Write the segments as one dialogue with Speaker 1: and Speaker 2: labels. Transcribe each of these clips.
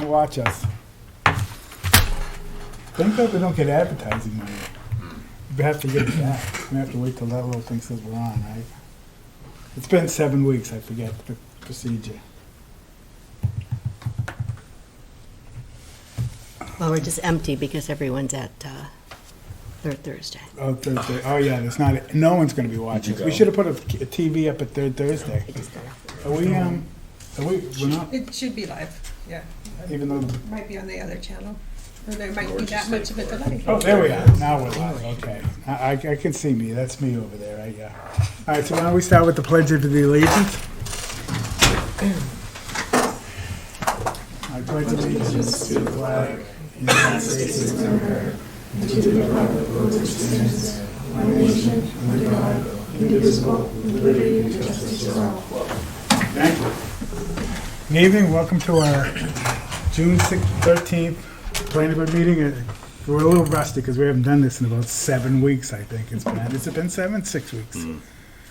Speaker 1: watch us. Thank God we don't get advertising money. We have to get it back. We have to wait till that little thing says we're on, right? It's been seven weeks, I forget the procedure.
Speaker 2: Well, we're just empty because everyone's at uh, Third Thursday.
Speaker 1: Oh, Thursday, oh yeah, there's not, no one's gonna be watching. We should have put a a TV up at Third Thursday.
Speaker 2: It just got off.
Speaker 1: Are we, um, are we, we're not,
Speaker 3: It should be live, yeah.
Speaker 1: even though,
Speaker 3: Might be on the other channel, or there might be that much of a delay.
Speaker 1: oh, there we are, now we're live, okay. I, I I can see me, that's me over there, right, yeah. All right, so why don't we start with the pledge of the allegiance? I pledge allegiance to the flag of the United States of America, and to the republic for which it stands, one nation, under God, indivisible, with liberty and justice for all. Thank you. Good evening, welcome to our June 13th planning board meeting. Uh, We're a little rusty because we haven't done this in about seven weeks, I think it's been. Has it been seven? Six weeks?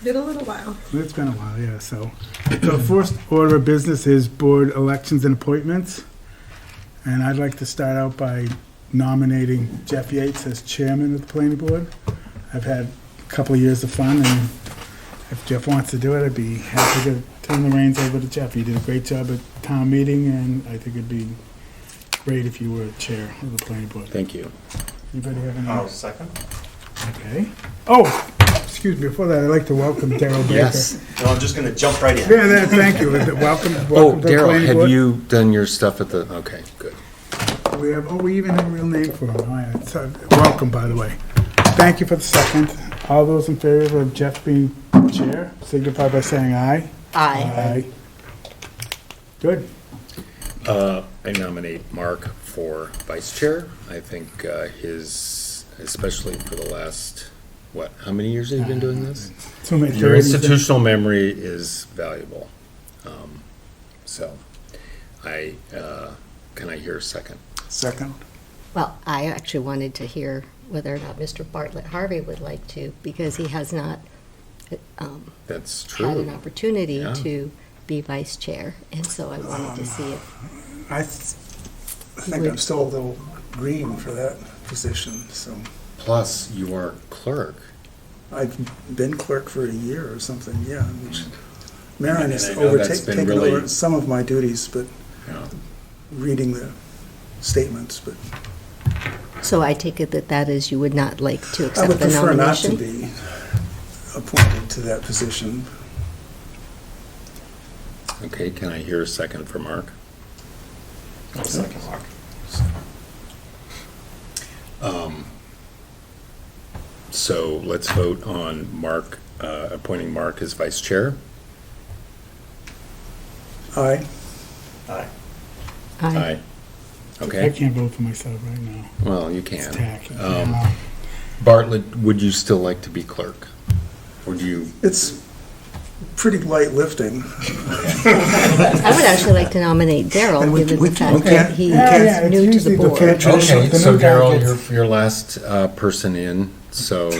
Speaker 3: Been a little while.
Speaker 1: It's been a while, yeah, so. So first order of business is board elections and appointments. And I'd like to start out by nominating Jeff Yates as chairman of the planning board. I've had a couple of years of fun, and if Jeff wants to do it, I'd be happy to turn the reins over to Jeff. He did a great job at town meeting, and I think it'd be great if you were chair of the planning board.
Speaker 4: Thank you.
Speaker 1: Anybody have any?
Speaker 5: I'll Oh, second.
Speaker 1: Okay. Oh, excuse me, before that, I'd like to welcome Daryl Baker.
Speaker 5: No, I'm just gonna jump right in.
Speaker 1: Yeah, that, thank you. Welcome, welcome
Speaker 4: Oh,
Speaker 1: to the
Speaker 4: Daryl,
Speaker 1: planning
Speaker 4: have
Speaker 1: board.
Speaker 4: you done your stuff at the, okay, good.
Speaker 1: We have, oh, we even have a real name for him. All right, so, welcome, by the way. Thank you for the second. All those in favor of Jeff being chair signify by saying aye.
Speaker 2: Aye.
Speaker 1: Good.
Speaker 4: Uh, I nominate Mark for vice chair. I think uh, his, especially for the last, what, how many years have you been doing this?
Speaker 1: Too many
Speaker 4: Your
Speaker 1: threes.
Speaker 4: institutional memory is valuable. Um, So I, uh, can I hear a second?
Speaker 1: Second.
Speaker 2: Well, I actually wanted to hear whether or not Mr. Bartlett Harvey would like to, because he has not um,
Speaker 4: That's
Speaker 2: had an
Speaker 4: true.
Speaker 2: opportunity
Speaker 4: Yeah.
Speaker 2: to be vice chair, and so I wanted to see if
Speaker 6: I th- I think I'm still a little green for that position, so
Speaker 4: Plus, you are clerk.
Speaker 6: I've been clerk for a year or something, yeah, which Marion has
Speaker 4: And I know that's
Speaker 6: overtaken,
Speaker 4: been
Speaker 6: taken
Speaker 4: really-
Speaker 6: over some of my duties, but
Speaker 4: you know.
Speaker 6: reading the statements, but
Speaker 2: So I take it that that is, you would not like to
Speaker 6: I
Speaker 2: accept
Speaker 6: would
Speaker 2: the
Speaker 6: prefer not to
Speaker 2: nomination?
Speaker 6: be appointed to that position.
Speaker 4: Okay, can I hear a second for Mark?
Speaker 5: I'll second Mark.
Speaker 4: Um, So let's vote on Mark, uh, appointing Mark as vice chair.
Speaker 6: Aye,
Speaker 5: Aye.
Speaker 2: Aye.
Speaker 1: I
Speaker 4: Okay,
Speaker 1: can't vote for myself right now.
Speaker 4: well, you
Speaker 1: It's
Speaker 4: can.
Speaker 1: tacky.
Speaker 4: Um,
Speaker 1: Yeah.
Speaker 4: Bartlett, would you still like to be clerk? Or do you,
Speaker 6: it's pretty light lifting.
Speaker 2: I would actually like to nominate Daryl,
Speaker 6: And we-
Speaker 2: given
Speaker 6: we-
Speaker 2: the
Speaker 6: we
Speaker 2: fact that
Speaker 6: can't-
Speaker 2: he
Speaker 6: we
Speaker 1: can't-
Speaker 2: is new to the
Speaker 1: Yeah, it's usually
Speaker 2: board.
Speaker 1: the
Speaker 4: okay,
Speaker 1: The
Speaker 4: so
Speaker 1: new guy
Speaker 4: Daryl,
Speaker 1: gets-
Speaker 4: you're, you're last, uh, person in, so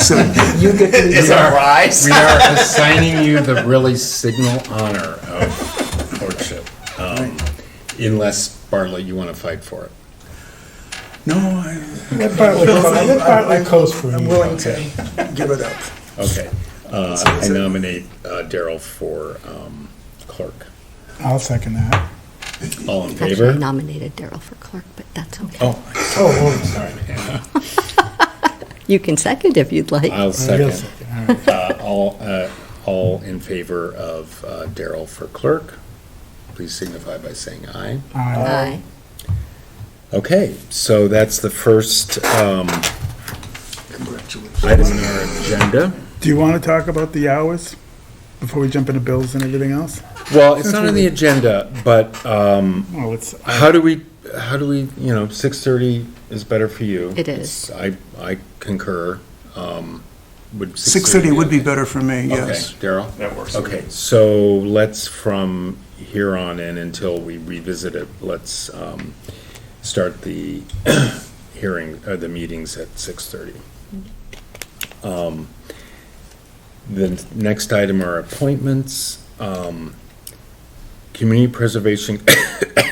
Speaker 6: So
Speaker 2: You get to be-
Speaker 5: Is that rise?
Speaker 4: we are assigning you the really signal honor of clerkship. um, Unless, Bartlett, you want to fight for it.
Speaker 6: No, I,
Speaker 1: Let Bartlett co- let Bartlett coast for
Speaker 6: I'm
Speaker 1: you.
Speaker 6: willing to give it up.
Speaker 4: Okay, uh, I nominate uh, Daryl for, um, clerk.
Speaker 1: I'll second that.
Speaker 4: All in
Speaker 2: Actually, I
Speaker 4: favor?
Speaker 2: nominated Daryl for clerk, but that's okay.
Speaker 4: Oh,
Speaker 1: Oh,
Speaker 4: sorry.
Speaker 2: You can second if you'd like.
Speaker 4: I'll
Speaker 1: oh, you'll
Speaker 4: second.
Speaker 1: second, all right.
Speaker 4: Uh, All, uh, all in favor of uh, Daryl for clerk, please signify by saying aye.
Speaker 1: Aye.
Speaker 2: Aye.
Speaker 4: Okay, so that's the first um,
Speaker 6: Congratulations.
Speaker 4: item on our agenda.
Speaker 1: Do you want to talk about the hours before we jump into bills and everything else?
Speaker 4: Well, it's not on the agenda, but um,
Speaker 1: Well, it's,
Speaker 4: how do we, how do we, you know, 6:30 is better for you.
Speaker 2: It is.
Speaker 4: It's- I, I concur. um, Would
Speaker 6: 6:30 would be
Speaker 4: okay?
Speaker 6: better for me,
Speaker 4: Okay,
Speaker 6: yes.
Speaker 4: Daryl?
Speaker 5: That works.
Speaker 4: Okay, so let's, from here on in until we revisit it, let's um, start the hearing, uh, the meetings at 6:30. Um, The next item are appointments. Um, Community Preservation